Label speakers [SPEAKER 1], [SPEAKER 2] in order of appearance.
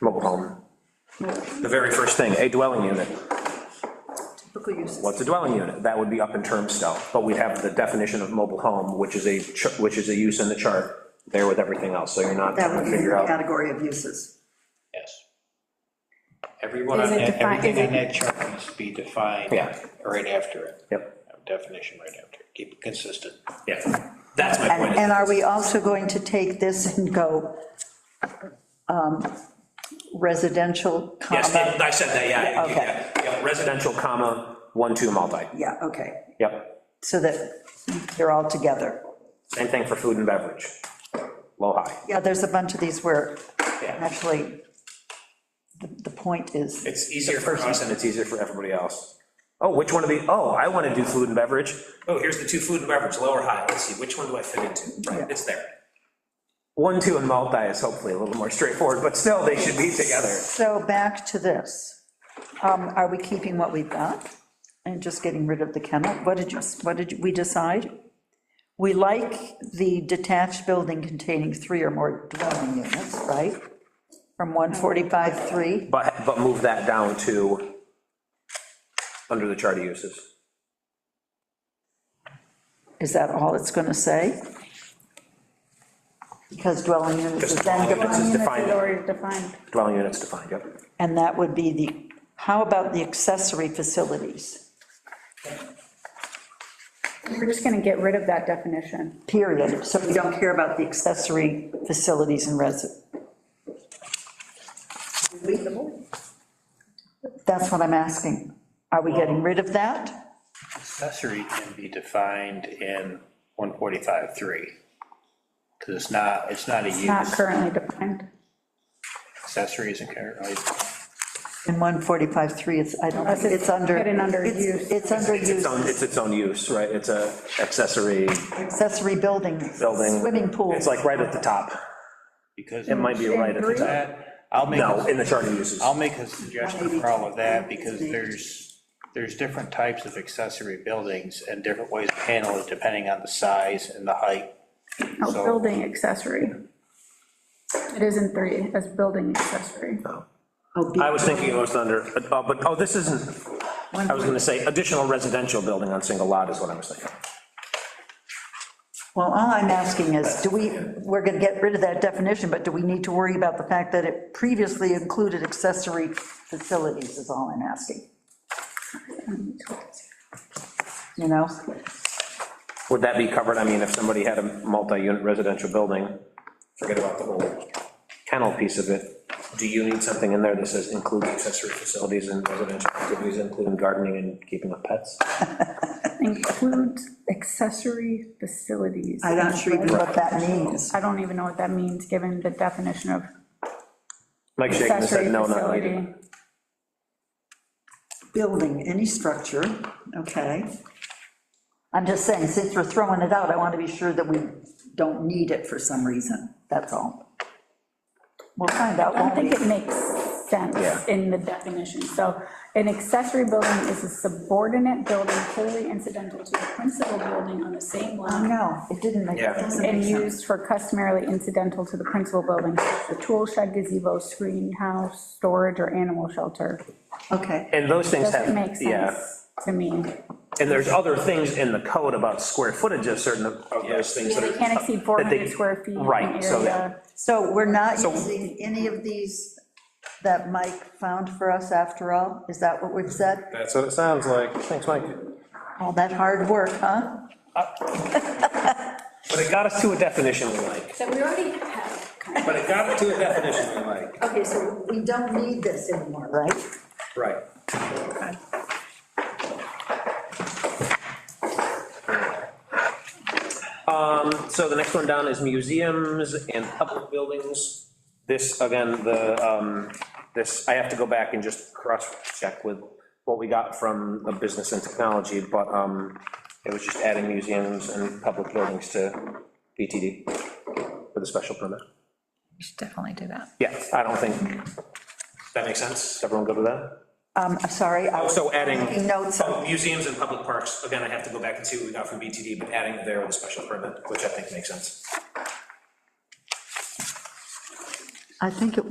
[SPEAKER 1] mobile home. The very first thing, a dwelling unit.
[SPEAKER 2] Typical uses.
[SPEAKER 1] What's a dwelling unit? That would be up in terms still, but we'd have the definition of mobile home, which is a, ch- which is a use in the chart there with everything else, so you're not
[SPEAKER 2] That
[SPEAKER 1] trying
[SPEAKER 2] would
[SPEAKER 1] to
[SPEAKER 2] be in
[SPEAKER 1] figure
[SPEAKER 2] the
[SPEAKER 1] out.
[SPEAKER 2] category of uses.
[SPEAKER 3] Yes. Everyone on
[SPEAKER 4] Is it
[SPEAKER 3] that,
[SPEAKER 4] defi-
[SPEAKER 3] everything
[SPEAKER 4] is
[SPEAKER 3] on that chart needs to be defined.
[SPEAKER 1] Yeah.
[SPEAKER 3] Right after it.
[SPEAKER 1] Yep,
[SPEAKER 3] Have Definition right after it. Keep it consistent.
[SPEAKER 1] yeah, that's my
[SPEAKER 5] And,
[SPEAKER 1] point.
[SPEAKER 5] and are we also going to take this and go um, residential,
[SPEAKER 1] Yes,
[SPEAKER 5] comma,
[SPEAKER 1] and I said that, yeah,
[SPEAKER 5] Yeah,
[SPEAKER 1] yeah, yeah, residential comma, one, two, multi,
[SPEAKER 2] Yeah, okay,
[SPEAKER 1] yep.
[SPEAKER 5] so that they're all together?
[SPEAKER 1] Same thing for food and beverage, low, high.
[SPEAKER 5] Yeah, there's a bunch of these where
[SPEAKER 1] Yeah.
[SPEAKER 5] actually the the point is,
[SPEAKER 1] It's easier for us and it's easier for everybody else. Oh, which one of the, oh, I want to do food and beverage. Oh, here's the two food and beverage, low or high, let's see, which one do I fit into? Right, it's there. One, two, and multi is hopefully a little more straightforward, but still, they should be together.
[SPEAKER 5] so back to this. Um, Are we keeping what we've got and just getting rid of the kennel? What did you, what did we decide? We like the detached building containing three or more dwelling units, right? From 145.3?
[SPEAKER 1] But, but move that down to, under the chart of uses.
[SPEAKER 5] Is that all it's going to say? Because dwelling units is
[SPEAKER 1] Just
[SPEAKER 5] then,
[SPEAKER 1] dwelling units
[SPEAKER 5] defined,
[SPEAKER 1] is
[SPEAKER 4] Units
[SPEAKER 1] defined,
[SPEAKER 4] is already defined.
[SPEAKER 1] dwelling units defined, yep.
[SPEAKER 5] and that would be the, how about the accessory facilities?
[SPEAKER 4] We're just gonna get rid of that definition.
[SPEAKER 5] Period. So we don't care about the accessory facilities and resi.
[SPEAKER 2] reasonable.
[SPEAKER 5] That's what I'm asking. Are we getting rid of that?
[SPEAKER 3] Accessory can be defined in 145.3. Because it's not, it's not a
[SPEAKER 4] It's not
[SPEAKER 3] use.
[SPEAKER 4] currently defined.
[SPEAKER 3] Accessory isn't currently.
[SPEAKER 5] In 145.3, it's, I don't,
[SPEAKER 4] Unless
[SPEAKER 5] it's under.
[SPEAKER 4] hidden under
[SPEAKER 5] it's-
[SPEAKER 4] use.
[SPEAKER 5] It's under
[SPEAKER 1] It's its
[SPEAKER 5] use,
[SPEAKER 1] own, it's its own use, right? It's a accessory
[SPEAKER 5] accessory buildings.
[SPEAKER 1] building.
[SPEAKER 5] Swimming pools.
[SPEAKER 1] It's like right at the top.
[SPEAKER 3] Because.
[SPEAKER 1] It might be right at the top.
[SPEAKER 3] That- I'll make.
[SPEAKER 1] No, in the chart of uses.
[SPEAKER 3] I'll make a suggestion for all of that, because there's, there's different types of accessory buildings and different ways to handle it, depending on the size and the height.
[SPEAKER 4] No,
[SPEAKER 3] So-
[SPEAKER 4] building accessory. It is in three, as building accessory.
[SPEAKER 5] Oh, be-
[SPEAKER 1] I was thinking it was under, uh, but, oh, this isn't, I was gonna say, additional residential building on single lot is what I was thinking.
[SPEAKER 5] Well, all I'm asking is, do we, we're gonna get rid of that definition, but do we need to worry about the fact that it previously included accessory facilities is all I'm asking, you know?
[SPEAKER 1] Would that be covered, I mean, if somebody had a multi-unit residential building, forget about the whole kennel piece of it, do you need something in there that says includes accessory facilities and residential activities, including gardening and keeping of pets?
[SPEAKER 4] Includes accessory facilities.
[SPEAKER 2] I'm not sure even
[SPEAKER 5] What that means,
[SPEAKER 4] I don't even know what that means, given the definition of
[SPEAKER 1] Mike shaking his
[SPEAKER 4] accessory
[SPEAKER 1] head, no, not needed.
[SPEAKER 4] facility.
[SPEAKER 2] building, any structure, okay.
[SPEAKER 5] I'm just saying, since we're throwing it out, I want to be sure that we don't need it for some reason, that's all. We'll find out,
[SPEAKER 4] I
[SPEAKER 5] won't
[SPEAKER 4] don't think
[SPEAKER 5] we?
[SPEAKER 4] it makes sense
[SPEAKER 1] Yeah.
[SPEAKER 4] in the definition. So an accessory building is a subordinate building wholly incidental to the principal building on the same
[SPEAKER 5] Oh,
[SPEAKER 4] lot
[SPEAKER 5] No, it didn't make,
[SPEAKER 1] Yeah.
[SPEAKER 5] it doesn't make
[SPEAKER 4] and
[SPEAKER 5] sense.
[SPEAKER 4] used for customarily incidental to the principal building, the tool shed, gazebo, screen house, storage, or animal shelter.
[SPEAKER 2] Okay,
[SPEAKER 1] And those things have, uh,
[SPEAKER 4] Doesn't make
[SPEAKER 1] yeah,
[SPEAKER 4] sense to me.
[SPEAKER 1] and there's other things in the code about square footage of certain of of those things that are.
[SPEAKER 4] They can't exceed
[SPEAKER 1] that they-
[SPEAKER 4] 400 square feet in
[SPEAKER 1] Right, so that-
[SPEAKER 4] area.
[SPEAKER 5] So we're not using any of these that Mike found for us after all? Is that what we've said?
[SPEAKER 1] That's what it sounds like. Thanks, Mike.
[SPEAKER 5] All that hard work, huh?
[SPEAKER 1] But it got us to a definition we like.
[SPEAKER 6] So we already have, kind of-
[SPEAKER 1] But it got us to a definition we like.
[SPEAKER 5] Okay, so we don't need this anymore, right?
[SPEAKER 1] Right. Um, so the next one down is museums and public buildings. This, again, the, um, this, I have to go back and just cross-check with what we got from the business and technology, but, um, it was just adding museums and public buildings to BTD with a special permit.
[SPEAKER 7] You should definitely do that.
[SPEAKER 1] Yeah, I don't think. That makes sense? Everyone go to that?
[SPEAKER 5] Um, I'm sorry, I was
[SPEAKER 1] Also adding.
[SPEAKER 5] taking notes.
[SPEAKER 1] Oh, Museums and public parks, again, I have to go back and see what we got from BTD, but adding there with a special permit, which I think makes sense.
[SPEAKER 5] I think it